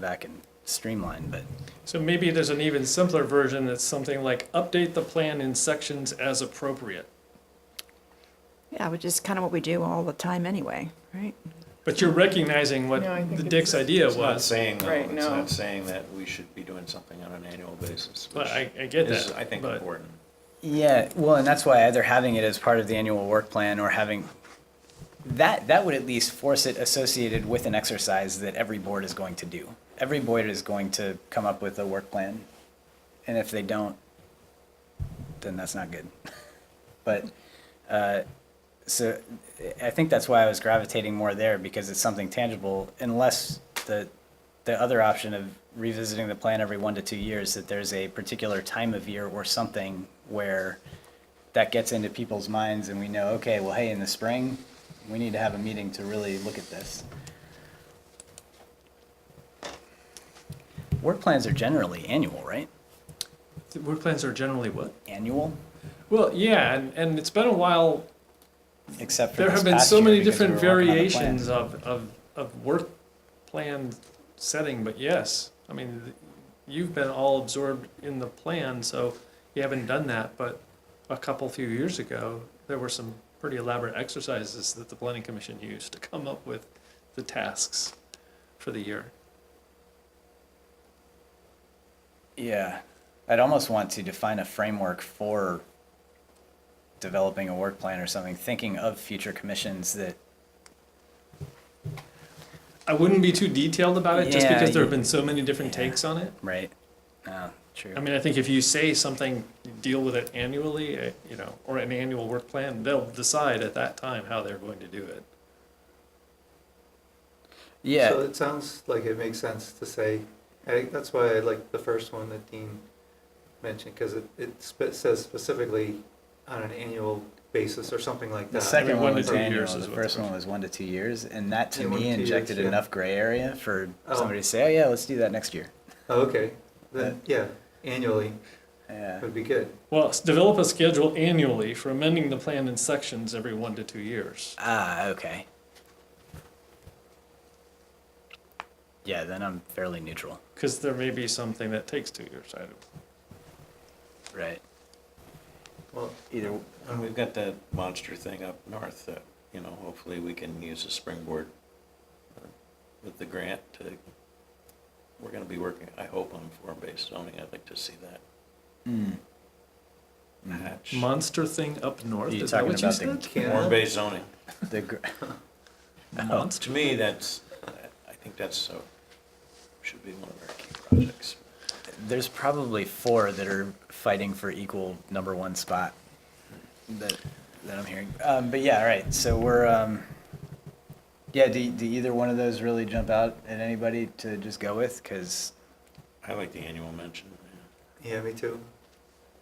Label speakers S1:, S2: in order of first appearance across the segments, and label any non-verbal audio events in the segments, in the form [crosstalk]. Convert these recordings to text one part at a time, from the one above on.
S1: back and streamline, but
S2: So maybe there's an even simpler version that's something like update the plan in sections as appropriate.
S3: Yeah, which is kind of what we do all the time anyway, right?
S2: But you're recognizing what
S4: No, I think
S2: the
S4: it's-
S2: Dick's idea
S5: It's not
S2: was.
S5: saying, though,
S4: Right,
S5: it's
S4: no.
S5: not saying that we should be doing something on an annual basis,
S2: But
S5: which
S2: I, I get
S5: is,
S2: that.
S5: I think,
S2: but-
S5: important.
S1: yeah, well, and that's why either having it as part of the annual work plan or having that that would at least force it associated with an exercise that every board is going to do. Every board is going to come up with a work plan, and if they don't, then that's not good. [laughs] but uh, so I think that's why I was gravitating more there because it's something tangible. Unless the the other option of revisiting the plan every one to two years, that there's a particular time of year or something where that gets into people's minds, and we know, okay, well, hey, in the spring, we need to have a meeting to really look at this. Work plans are generally annual, right?
S2: Work plans are generally what?
S1: Annual,
S2: Well, yeah, and, and it's been a while.
S1: except for
S2: There
S1: this
S2: have been
S1: past
S2: so
S1: year
S2: many
S1: because we
S2: different
S1: were working on the plan.
S2: variations of, of, of work plan setting, but yes. I mean, th- you've been all absorbed in the plan, so you haven't done that, but a couple few years ago, there were some pretty elaborate exercises that the planning commission used to come up with the tasks for the year.
S1: Yeah, I'd almost want to define a framework for developing a work plan or something, thinking of future commissions that,
S2: I wouldn't be too detailed about it just
S1: Yeah,
S2: because there
S1: you-
S2: have been so many different
S1: yeah.
S2: takes on it.
S1: right? No, true.
S2: I mean, I think if you say something, deal with it annually, eh, you know, or an annual work plan, they'll decide at that time how they're going to do it.
S6: So
S1: Yeah,
S6: it sounds like it makes sense to say, I think that's why I like the first one that Dean mentioned, because it, it spe- says specifically on an annual basis or something like that.
S1: the second
S2: every
S1: one
S2: one to
S1: was
S2: two
S1: annual,
S2: years
S1: the
S2: is what
S1: first
S2: the
S1: one was one to two years, and that to
S6: Yeah, one to
S1: me
S6: two years,
S1: injected
S6: yeah.
S1: enough gray area for
S6: Oh.
S1: somebody to say, oh yeah, let's do that next year.
S6: Oh, Okay, then, yeah, annually
S1: Yeah,
S6: would be good.
S2: Well, s- develop a schedule annually for amending the plan in sections every one to two years.
S1: ah, okay. Yeah, then I'm fairly neutral,
S2: Because there may be something that takes two years. I don't-
S1: right?
S6: Well,
S1: Either,
S5: And we've got that monster thing up north that, you know, hopefully we can use a springboard uh, with the grant to, we're gonna be working, I hope, on form-based zoning. I'd like to see that
S1: mm.
S5: hatch.
S2: Monster thing up north,
S1: Are you
S2: is that
S1: talking
S2: what you
S1: about the
S2: said?
S6: Canada,
S5: Form-based zoning.
S1: the, gr-
S2: Monster?
S5: To me, that's, I think that's so, should be one of our key projects.
S1: There's probably four that are fighting for equal number one spot that, that I'm hearing. Um, but yeah, all right. So we're, um, yeah, do, do either one of those really jump out at anybody to just go with? Cause
S5: I like the annual mention. yeah.
S6: yeah, me too.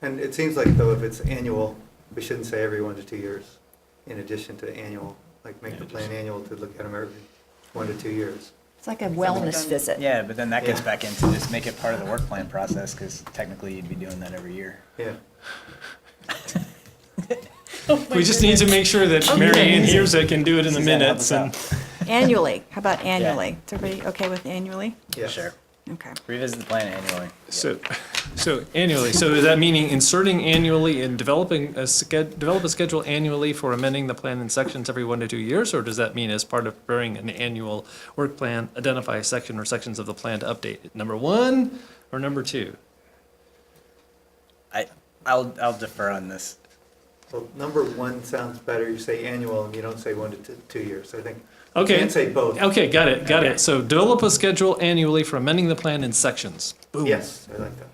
S6: And it seems like though, if it's annual, we shouldn't say every one to two years, in addition to annual, like make the
S5: Yeah,
S6: plan
S5: just-
S6: annual to look at them every one to two years.
S3: It's like a wellness visit.
S1: yeah, but then that gets
S6: Yeah.
S1: back into just make it part of the work plan process. Cause technically you'd be doing that every year.
S6: Yeah,
S2: We just need to make sure that Mary Ann hears it, can do it in the
S1: Suzanne, help
S2: minutes
S1: us
S2: and.
S3: Annually, how about annually? Is everybody okay with annually?
S6: yeah.
S1: Sure.
S3: Okay.
S1: Revisit the plan annually.
S2: So, so annually, so is that meaning inserting annually and developing a sched, develop a schedule annually for amending the plan in sections every one to two years? Or does that mean as part of preparing an annual work plan, identify a section or sections of the plan to update it? Number one or number two?
S1: I, I'll, I'll defer on this.
S6: Well, number one sounds better, you say annual, and you don't say one to t- two years, I think. you
S2: Okay.
S6: can say both,
S2: Okay, got it, got it. So develop a schedule annually for amending the plan in sections. Boom.
S6: yes, I like that.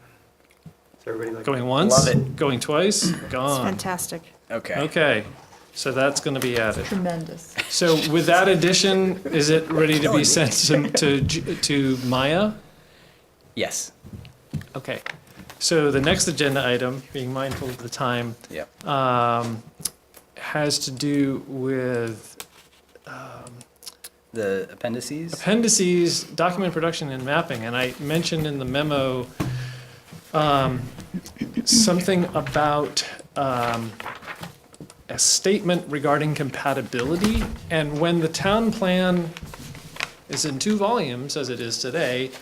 S6: Does everybody like that?
S2: Going once,
S1: Love it.
S2: going twice,
S3: It's
S2: gone.
S3: fantastic.
S1: Okay.
S2: Okay, so that's gonna be added.
S4: Tremendous.
S2: So with that addition, is it ready to be sent to, to, Ju- to Maya?
S1: Yes.
S2: Okay. So the next agenda item, being mindful of the time,
S1: Yep.
S2: um, has to do with um,
S1: The appendices.
S2: appendices, document production and mapping. And I mentioned in the memo um, something about um, a statement regarding compatibility. And when the town plan is in two volumes, as it is today,